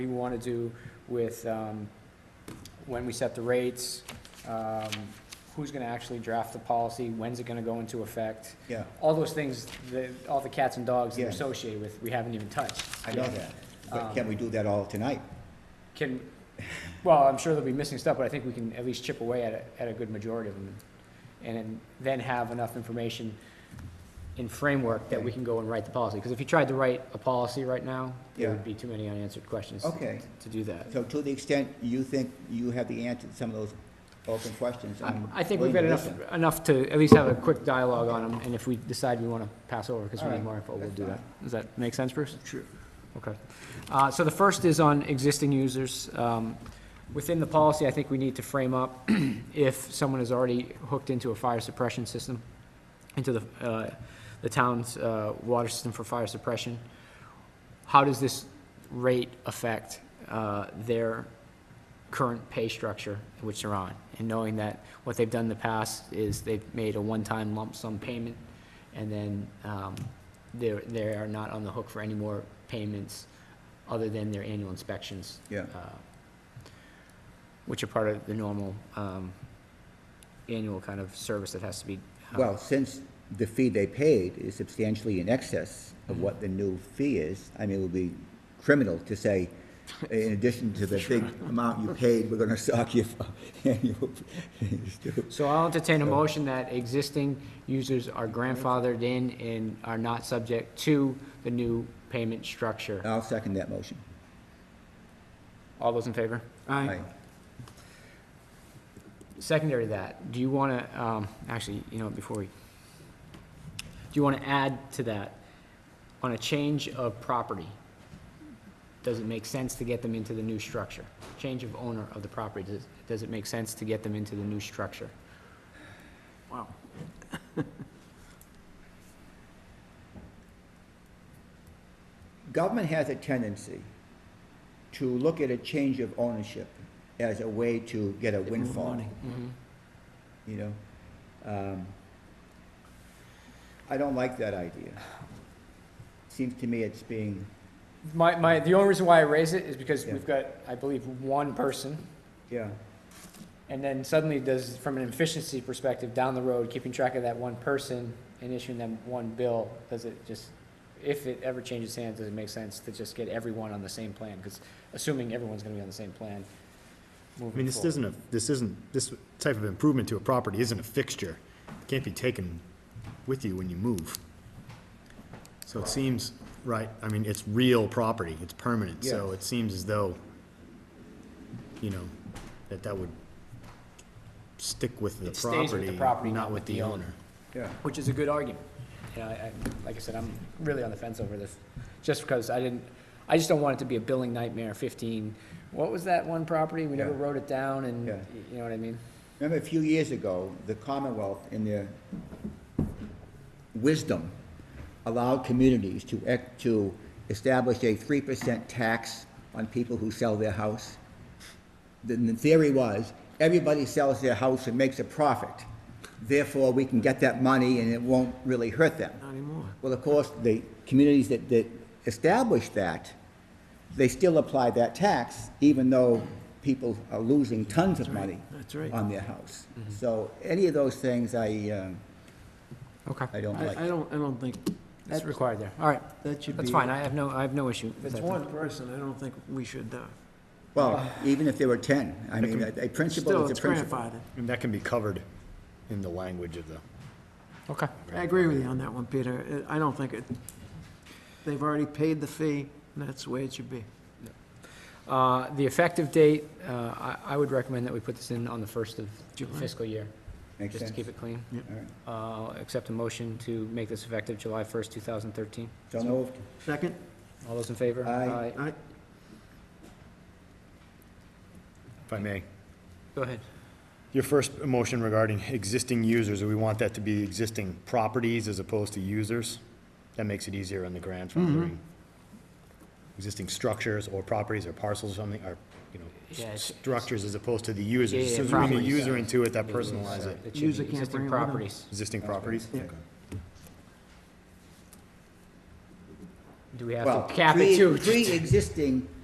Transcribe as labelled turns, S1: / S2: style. S1: we want to do with, um, when we set the rates, um, who's going to actually draft the policy, when's it going to go into effect?
S2: Yeah,
S1: All those things, the, all the cats and dogs that are
S2: Yeah.
S1: associated with, we haven't even touched.
S2: I know that,
S1: Um,
S2: but can we do that all tonight?
S1: Can, well, I'm sure there'll be missing stuff, but I think we can at least chip away at a, at a good majority of them. And then have enough information in framework that we can go and write the policy. Because if you tried to write a policy right now, there
S2: Yeah.
S1: would be too many unanswered questions
S2: Okay.
S1: to do that.
S2: So to the extent you think you have the answer to some of those open questions,
S1: I-
S2: I'm
S1: I think we've
S2: willing
S1: got
S2: to
S1: enough,
S2: listen.
S1: enough to at least have a quick dialogue on them, and if we decide we want to pass over because we need
S2: Alright,
S1: more info, we'll
S2: that's
S1: do that. Does that make sense, Bruce?
S2: Sure.
S1: Okay. Uh, So the first is on existing users. Um, Within the policy, I think we need to frame up if someone is already hooked into a fire suppression system, into the, uh, the town's uh, water system for fire suppression, how does this rate affect uh, their current pay structure which they're on. And knowing that what they've done in the past is they've made a one-time lump sum payment, and then um, they're, they are not on the hook for any more payments other than their annual inspections.
S2: Yeah.
S1: uh, Which are part of the normal um, annual kind of service that has to be. uh,
S2: Well, since the fee they paid is substantially in excess of
S1: Mm-hmm.
S2: what the new fee is, I mean, it would be criminal to say, in addition to the big amount you paid, we're gonna sock you for annual fees too.
S1: So I'll entertain a motion that existing users are grandfathered in and are not subject to the new payment structure.
S2: I'll second that motion.
S1: All those in favor?
S2: Aye.
S1: Secondary to that, do you want to, um, actually, you know, before we, do you want to add to that, on a change of property, does it make sense to get them into the new structure? Change of owner of the property, does, does it make sense to get them into the new structure? Wow.
S2: Government has a tendency to look at a change of ownership as a way to get a windfall,
S1: Mm-hmm.
S2: you know? Um, I don't like that idea. Seems to me it's being,
S1: My, my, the only reason why I raise it is because
S2: Yeah.
S1: we've got, I believe, one person
S2: yeah,
S1: And then suddenly does, from an efficiency perspective, down the road, keeping track of that one person and issuing them one bill, does it just, if it ever changes hands, does it make sense to just get everyone on the same plan? Because assuming everyone's gonna be on the same plan
S3: I mean,
S1: moving
S3: this
S1: forward.
S3: isn't a, this isn't, this type of improvement to a property isn't a fixture. It Can't be taken with you when you move. So it seems, right, I mean, it's real property, it's permanent, so
S2: Yeah.
S3: it seems as though, you know, that that would stick with the
S1: It stays with the property,
S3: property, not with the owner.
S2: yeah.
S1: Which is a good argument. You know, I, I, like I said, I'm really on the fence over this, just because I didn't, I just don't want it to be a billing nightmare fifteen. What was that one property? We never
S2: Yeah.
S1: wrote it down and,
S2: Yeah.
S1: you know what I mean?
S2: Remember a few years ago, the Commonwealth, in their wisdom, allowed communities to, ec- to establish a three percent tax on people who sell their house? The, the theory was, everybody sells their house and makes a profit, therefore we can get that money and it won't really hurt them. Not anymore. Well, of course, the communities that, that established that, they still apply that tax, even though people are losing tons of money
S4: That's right. Mm-hmm.
S2: on their house. So any of those things I, um,
S1: Okay.
S2: I don't
S4: I, I
S2: like.
S4: don't, I don't think
S1: That's required there. All right.
S4: that should be.
S1: That's fine, I have no, I have no issue.
S4: If
S1: with
S4: it's
S1: that.
S4: one person, I don't think we should, uh,
S2: Well, even if there were ten, I mean, a a
S4: still,
S2: principle is
S4: it's
S2: a principle.
S4: grandfathered.
S3: And that can be covered in the language of the.
S1: Okay,
S4: I agree with you on that one, Peter. Uh, I I don't think it, they've already paid the fee, and that's the way it should be.
S1: uh, the effective date, uh, I, I would recommend that we put this in on the first of
S4: July.
S1: fiscal year,
S2: Makes
S1: just to
S2: sense.
S1: keep it clean.
S2: All right.
S1: Uh, accept a motion to make this effective July first, two thousand thirteen.
S2: So moved.
S4: Second?
S1: All those in favor?
S2: Aye.
S4: I,
S3: If I may.
S1: Go ahead.
S3: Your first motion regarding existing users, do we want that to be existing properties as opposed to users? That makes it easier on the grandfathering. Existing structures or properties or parcels or something, or, you
S1: Yeah,
S3: know,
S1: it's-
S3: structures as opposed to the users.
S1: Yeah, yeah,
S3: So if you bring a
S1: properties.
S3: user into it, that personalizes it.
S1: It should be
S4: User can't
S1: existing
S4: bring it with them.
S1: properties.
S3: Existing properties?
S4: Yeah.
S3: Okay.
S1: Do we have
S2: Well,
S1: to cap it
S2: pre-
S1: too?
S2: Pre-existing